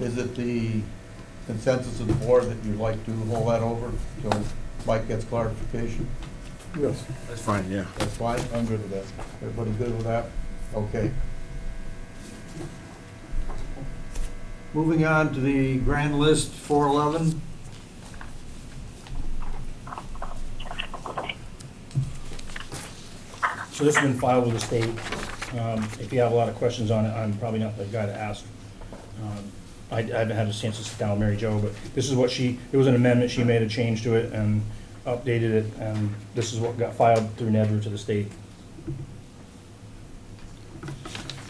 Is it the consensus of the board that you'd like to hold that over till Mike gets clarification? Yes. That's fine, yeah. That's fine, I'm good with that. Everybody good with that? Okay. Moving on to the grand list, 411. So this has been filed with the state. Um, If you have a lot of questions on it, I'm probably not the guy to ask. Um, I I haven't had a chance to sit down with Mary Jo, but this is what she, it was an amendment, she made a change to it and updated it, and this is what got filed through NEDRA to the state.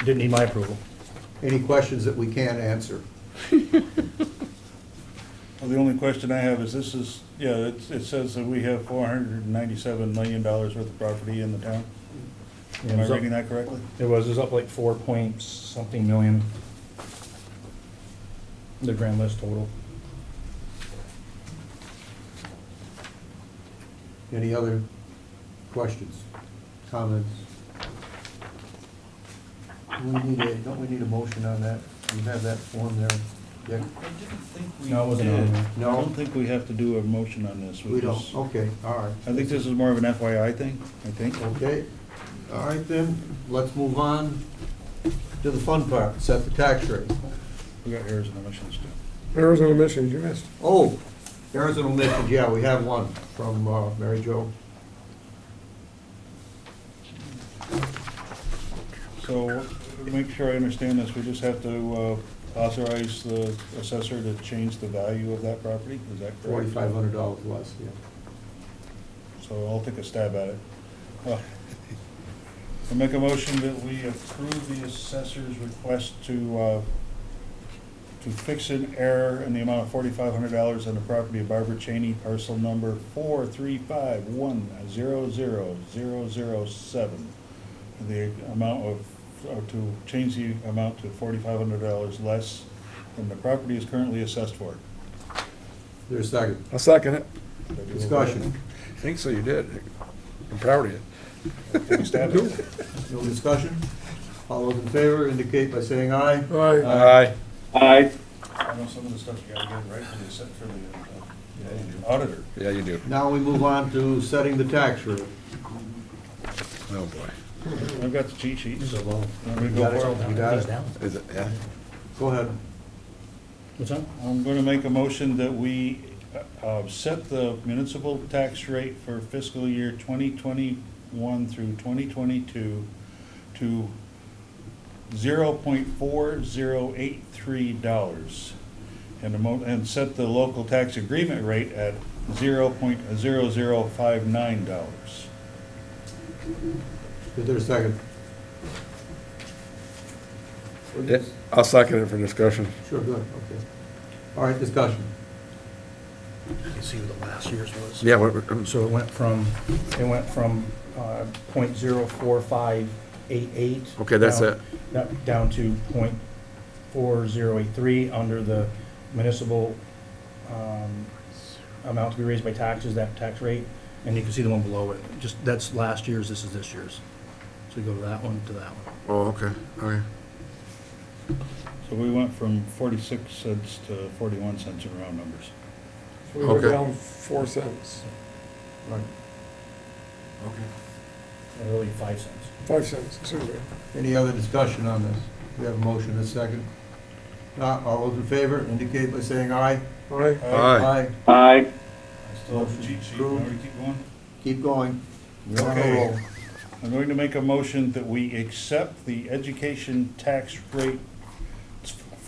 Didn't need my approval. Any questions that we can't answer? Well, the only question I have is this is, yeah, it, it says that we have four hundred and ninety-seven million dollars worth of property in the town. Am I reading that correctly? It was, it was up like four point something million. The grand list total. Any other questions, comments? Do we need a, don't we need a motion on that? You have that form there, Dick? I didn't think No, it wasn't on there. I don't think we have to do a motion on this. We don't, just- okay, all right. I think this is more of an FYI thing, I think. Okay, all right then, let's move on to the fun part, set the tax rate. We got errors and omissions too. Errors and omissions, you missed. Oh, errors and omissions, yeah, we have one from uh, Mary Jo. So, make sure I understand this, we just have to uh, authorize the assessor to change the value of that property, is that correct? Forty-five hundred dollars less, yeah. So I'll take a stab at it. Uh, I make a motion that we approve the assessor's request to, uh, to fix an error in the amount of forty-five hundred dollars on the property of Barbara Cheney, parcel number four three five one zero zero zero zero seven. The amount of, or to change the amount to forty-five hundred dollars less than the property is currently assessed for. There's a second, I'll second it. Did I do okay? discussion, I think so, you did. I'm proud of you. Take a stab at it. no discussion? All those in favor indicate by saying aye. Aye. I know some of the stuff you gotta get right for the, set for the uh, auditor. Yeah, you do. Now we move on to setting the tax rate. Oh, boy. I've got the cheat sheet, so. I'm gonna You got go it? for You it. got it? Is it, yeah? Go ahead. What's that? I'm gonna make a motion that we, uh, uh, set the municipal tax rate for fiscal year twenty twenty-one through twenty twenty-two to zero point four zero eight three dollars. And the mo, and set the local tax agreement rate at zero point zero zero five nine dollars. Is there a second? Yeah, I'll second it for discussion. Sure, good, okay. All right, discussion. You see what the last year's was? Yeah, what, um, So it went from, it went from uh, point zero four five eight eight. Okay, that's down- it. that- Down to point four zero eight three under the municipal um, amount to be raised by taxes, that tax rate. And you can see the one below it, just, that's last year's, this is this year's. So we go to that one, to that one. oh, okay, okay. So we went from forty-six cents to forty-one cents in round numbers. We were Okay. down four cents, All right. Really five cents. five cents, excuse me. Any other discussion on this? We have a motion, a second. Not, all those in favor indicate by saying aye. Aye. Aye. I still have the cheat sheet, Approved. Now we keep going? Keep going. We're on a Okay. roll. I'm going to make a motion that we accept the education tax rate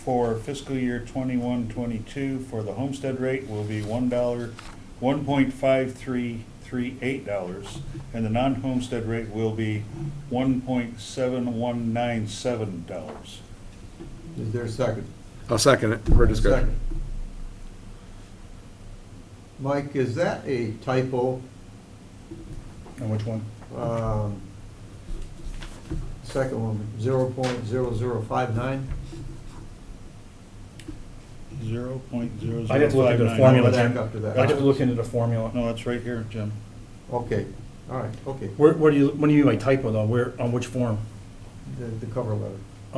for fiscal year twenty-one, twenty-two, for the homestead rate will be one dollar, one point five three three eight dollars, and the non-homestead rate will be one point seven one nine seven dollars. Is there a second? I'll second it for discussion. Second. Mike, is that a typo? And which one? Um, Second one, 0.0059? Zero point zero zero five nine. I'd have to look at the formula, Back Jim. up to I have to that. look into the formula. No, that's right here, Jim. Okay, all right, okay. Where, where do you, what do you mean by typo though? Where, on which form? The the cover letter.